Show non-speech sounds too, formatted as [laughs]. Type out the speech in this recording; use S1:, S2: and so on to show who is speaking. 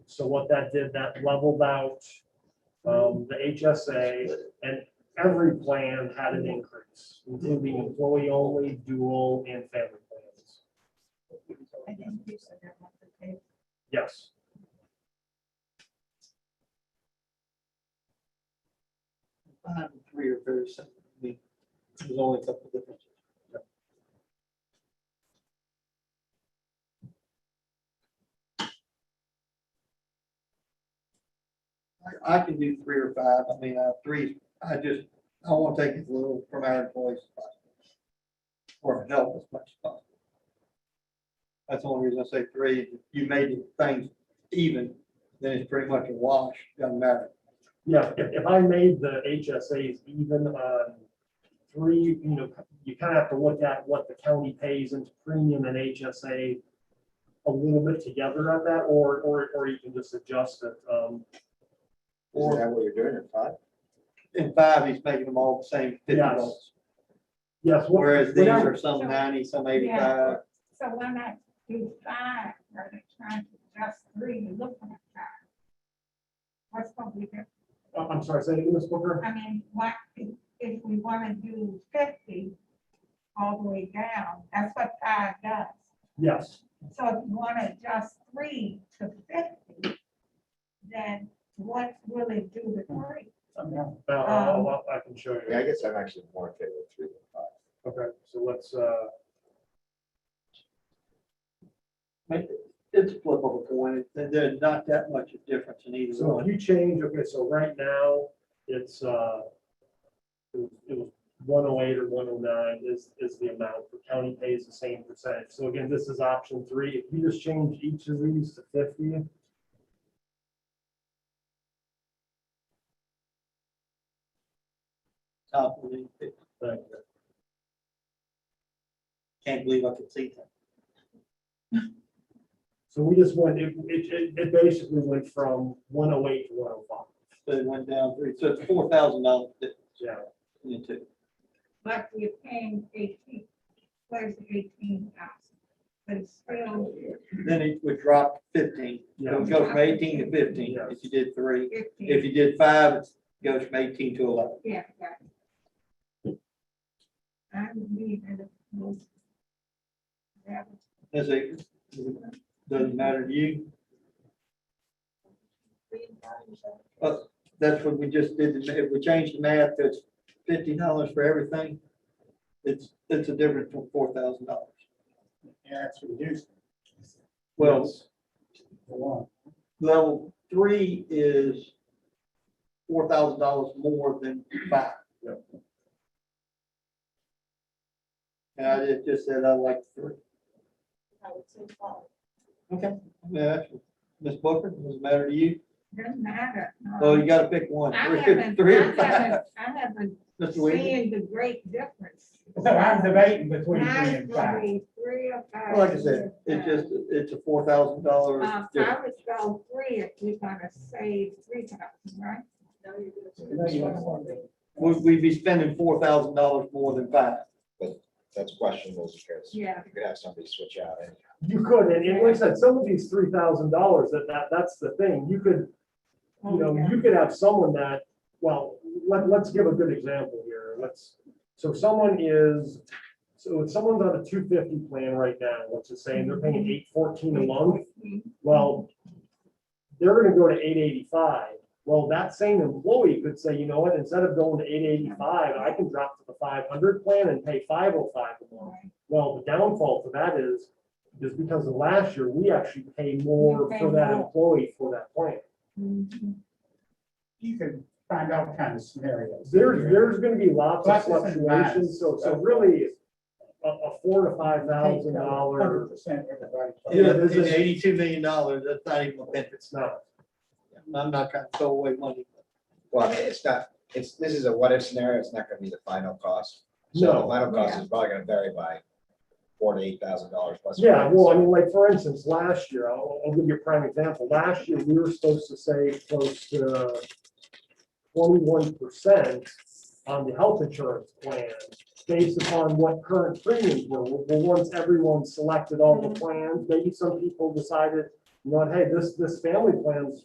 S1: So what that did, that leveled out um, the HSA and every plan had an increase, including employee only, dual and family plans.
S2: I think you said that monthly pay.
S1: Yes.
S3: Um, Three or very simple. I mean, There's only a couple differences. I, I can do three or five. I mean, uh, three, I just, I want to take as little from our employees as possible. Or help as much as possible. That's the only reason I say three. If you made things even, then it's pretty much a wash, doesn't matter.
S1: Yeah, if, if I made the HSAs even on three, you know, you kind of have to look at what the county pays into premium and HSA a little bit together on that, or, or, or you can just adjust it. Um,
S3: Or-
S4: Isn't that what you're doing at five?
S3: In five, he's making them all the same fifty
S1: Yes.
S3: bucks,
S1: yes, what-
S3: whereas these
S1: whatever.
S3: are some ninety, some eighty-five.
S2: So why not do five, or they trying to adjust three, you look at five? What's gonna be different?
S1: Oh, I'm sorry, say it again, Ms. Booker?
S2: I mean, what, if- if we wanna do fifty all the way down, that's what five does.
S1: Yes.
S2: So if you wanna adjust three to fifty, then what will it do to three?
S1: Uh, I'll- I'll- I can show
S4: Yeah, I
S1: you.
S4: guess I'm actually more in favor of three than five.
S1: Okay, so let's, uh,
S3: Make- It's a flip of a coin, there- there's not that much of difference in either
S1: So if
S3: one.
S1: you change, okay, so right now, it's, uh, it was- it was one oh eight or one oh nine is, is the amount, the county pays the same percentage. So again, this is option three, if you just change each of these to fifty.
S3: Top one, it-
S1: thank you.
S3: Can't believe I could see that.
S1: So we just went, it, it, it- it basically went from one oh eight to one oh five,
S3: So it went down three, so it's four thousand dollars
S1: yeah.
S3: in the two.
S2: But you're paying eighteen, where's the eighteen thousand? But it's still
S3: Then it would drop fifteen, it would go from eighteen to fifteen if you did three. If
S2: fifteen,
S3: you did five, it goes from eighteen to eleven.
S2: yeah, yeah. I would need a most. That would
S3: Is it, doesn't matter to you?
S2: be valuable.
S3: Well, that's what we just did, if we change the math, it's fifty dollars for everything. It's, it's a difference from four thousand dollars.
S5: Yeah, it's reduced.
S3: Well,
S5: For one.
S3: level three is four thousand dollars more than five.
S1: Yep.
S3: And I just- just said I like three.
S2: I would say five.
S3: Okay. Yeah, Ms. Booker, does it matter to you?
S2: Doesn't matter. no.
S3: Well, you gotta pick one.
S2: I
S3: Three
S2: haven't,
S3: [laughs] three
S2: I
S3: or five.
S2: haven't, I
S3: [laughs]
S2: haven't
S3: Mr. Williams?
S2: seen the great difference.
S5: So I'm debating between
S2: Now
S5: three
S2: it's
S5: and
S2: gonna
S5: five.
S2: be three or five.
S3: Like I said,
S2: years
S3: it's
S2: down.
S3: just, it's a four thousand dollars
S2: Um,
S3: difference.
S2: I would go three if we're gonna save three thousand, right?
S3: We'd, we'd be spending four thousand dollars more than five.
S4: That's questionable because you
S2: Yeah.
S4: could have somebody switch out and
S1: You could, and and like I said, some of these three thousand dollars, that, that, that's the thing, you could, you know, you could have someone that, well, let, let's give a good example here, let's, so someone is, so if someone's on a two fifty plan right now, let's just say, and they're paying eight fourteen a month, well, they're gonna go to eight eighty-five, well, that same employee could say, you know what, instead of going to eight eighty-five, I can drop to the five hundred plan and pay five oh five a month.
S2: Right.
S1: Well, the downfall for that is, is because of last year, we actually pay more
S2: We pay
S1: for that
S2: more.
S1: employee for that plan.
S2: Mhm.
S5: You can find all kinds of scenarios.
S1: There's, there's gonna be lots of
S5: Pluses and minuses.
S1: fluctuations, so, so really, a, a four to five thousand dollar,
S5: Hundred percent everybody.
S1: Yeah,
S3: Yeah,
S1: this is-
S3: eighty-two million dollars, that's not even a penny.
S1: it's not.
S3: I'm not trying to throw away money.
S4: Well, I mean, it's not, it's, this is a what if scenario, it's not gonna be the final cost. So
S1: No.
S4: The final cost is probably gonna vary by four to eight thousand dollars plus. or
S1: Yeah,
S4: minus.
S1: well, I mean, like, for instance, last year, I'll, I'll give you a prime example. Last year, we were supposed to save close to twenty-one percent on the health insurance plan based upon what current premiums were. Well, once everyone selected all the plans, maybe some people decided, you know, hey, this, this family plan's